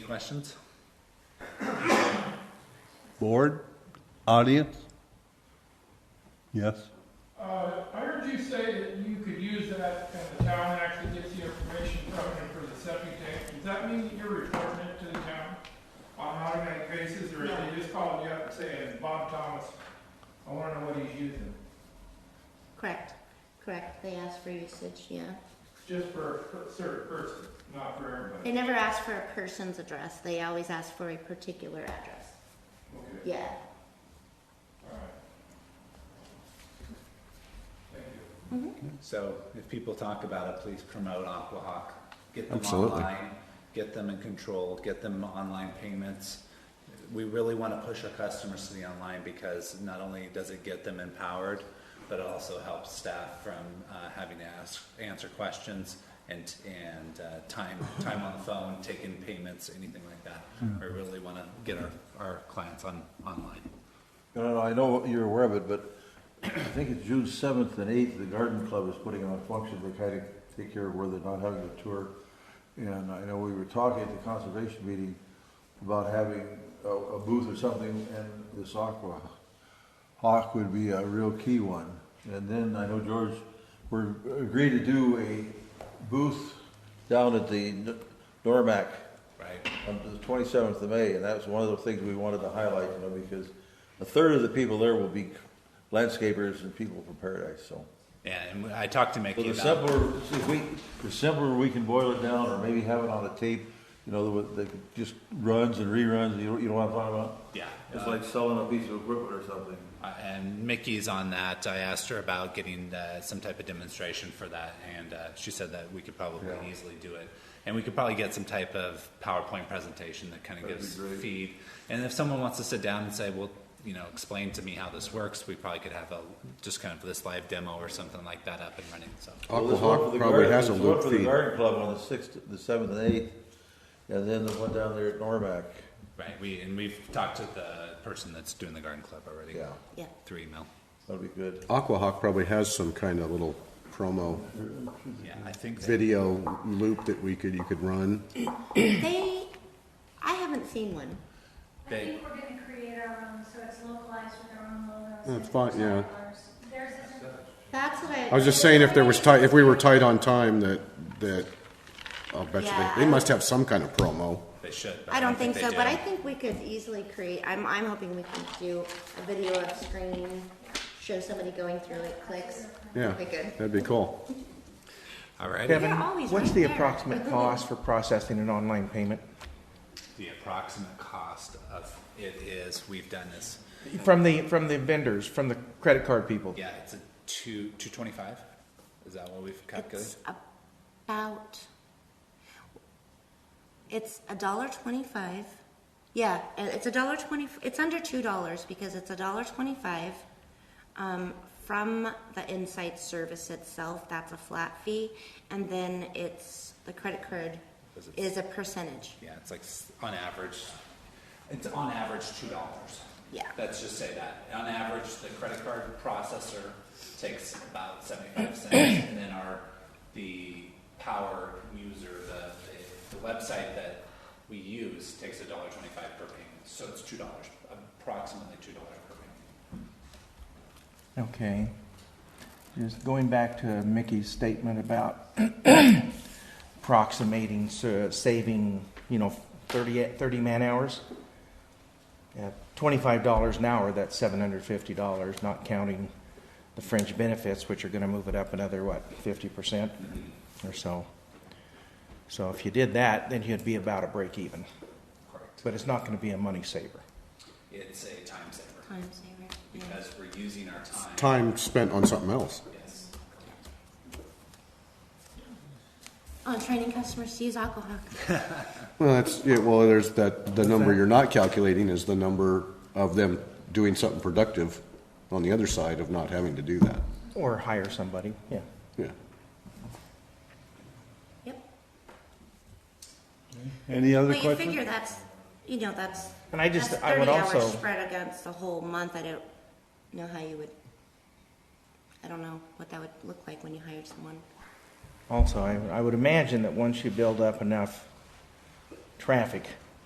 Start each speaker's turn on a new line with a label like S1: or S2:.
S1: questions?
S2: Board, audience? Yes?
S3: Uh, I heard you say that you could use that and the town actually gets the information from you for the septic tank. Does that mean that you're reporting it to the town on an automatic basis, or is they just calling you up and saying, Bob Thomas, I wanna know what he's using?
S4: Correct, correct. They ask for usage, yeah.
S3: Just for a per- certain person, not for everybody.
S4: They never ask for a person's address. They always ask for a particular address.
S3: Okay,
S4: Yeah.
S3: all right. Thank you.
S1: So if people talk about it, please promote Aquahawk. Get them
S5: Absolutely.
S1: online, get them in control, get them online payments. We really want to push our customers to the online because not only does it get them empowered, but it also helps staff from uh, having to ask, answer questions and, and uh, time, time on the phone, taking payments, anything like that. We really want to get our, our clients on, online.
S6: No, no, no, I know you're aware of it, but I think it's June seventh and eighth, the garden club is putting on a function to kind of take care of where they're not having a tour. And I know we were talking at the conservation meeting about having a, a booth or something, and this aqua hawk would be a real key one. And then I know George, we're agreed to do a booth down at the N- Normac
S1: Right.
S6: on Um, the twenty-seventh of May, and that's one of the things we wanted to highlight, you know, because a third of the people there will be landscapers and people from Paradise, so.
S1: And I talked to
S6: So
S1: Mickey
S6: the
S1: about,
S6: simpler, see, if we, the simpler we can boil it down, or maybe have it on a tape, you know, that that just runs and reruns, you know, you know what I'm talking about?
S1: yeah.
S6: It's
S1: uh,
S6: like selling a piece of equipment or something.
S1: Uh, And Mickey's on that. I asked her about getting uh, some type of demonstration for that, and uh, she said that we could probably
S6: Yeah.
S1: easily do it. And we could probably get some type of PowerPoint presentation that kind of
S6: That'd
S1: gives
S6: be great.
S1: feed. And if someone wants to sit down and say, well, you know, explain to me how this works, we probably could have a just kind of this live demo or something like that up and running. So
S6: Well, there's one for
S5: Aquahawk
S6: the
S5: probably
S6: garden-
S5: has a
S6: there's one
S5: loop
S6: for the
S5: feed.
S6: Garden Club on the sixth, the seventh and eighth, and then the one down there at Normac,
S1: right, we and we've talked to the person that's doing the garden club already.
S6: yeah,
S4: Yeah.
S1: Through email.
S6: that'll be good.
S5: Aquahawk probably has some kind of little promo
S6: Mm-hmm.
S1: Yeah, I think. that-
S5: video loop that we could, you could run.
S4: They, I haven't seen one.
S7: I
S1: They-
S7: think we're gonna create our own, so it's localized with our own logos.
S5: That's fine,
S7: and
S5: yeah.
S7: colors. Theirs isn't,
S4: That's what I.
S5: I was just saying if there was tight, if we were tight on time, that, that, I'll bet you
S4: Yeah,
S5: they,
S4: I-
S5: they must have some kind of promo.
S1: They should. but
S4: I don't think
S1: they
S4: so,
S1: do.
S4: but I think we could easily create, I'm, I'm hoping we could do a video of screen, show somebody going through it, clicks.
S5: Yeah,
S4: That'd be good.
S5: that'd be cool.
S1: All right.
S8: Kevin,
S4: They're always
S8: what's
S4: right
S8: the
S4: there.
S8: approximate cost for processing an online payment?
S1: The approximate cost of it is, we've done this,
S8: From the, from the vendors, from the credit card people?
S1: yeah, it's a two, two twenty-five? Is that what we've calculated?
S4: It's about, it's a dollar twenty-five. Yeah, and it's a dollar twenty, it's under two dollars because it's a dollar twenty-five. Um, from the insight service itself, that's a flat fee. And then it's, the credit card
S1: Is it-
S4: is a percentage.
S1: Yeah, it's like, s- on average, it's on average two dollars.
S4: Yeah.
S1: Let's just say that. On average, the credit card processor takes about seventy-five cents, and then our, the power user, the, the- the website that we use takes a dollar twenty-five per payment. So it's two dollars, approximately two dollars per payment.
S8: Okay. Just going back to Mickey's statement about approximating, sa- saving, you know, 30, 30 man-hours. At $25 an hour, that's $750, not counting the fringe benefits, which are going to move it up another, what, 50% or so. So if you did that, then you'd be about a break even.
S1: Correct.
S8: But it's not going to be a money saver.
S1: It's a time saver
S4: Time saver. yeah.
S1: because we're using our time.
S5: Time spent on something else.
S1: Yes.
S4: On Oh, training customers to use alcohol.
S5: Well, that's, yeah, well, there's that, the number you're not calculating is the number of them doing something productive on the other side of not having to do that.
S8: Or hire somebody, yeah.
S5: Yeah.
S4: Yep.
S2: Any other
S4: But you
S2: questions?
S4: figure that's, you know, that's.
S8: And I just-
S4: that's
S8: I would
S4: 30 hours
S8: also-
S4: Spread against the whole month, I don't know how you would, I don't know what that would look like when you hired someone.
S8: Also, I, I would imagine that once you build up enough traffic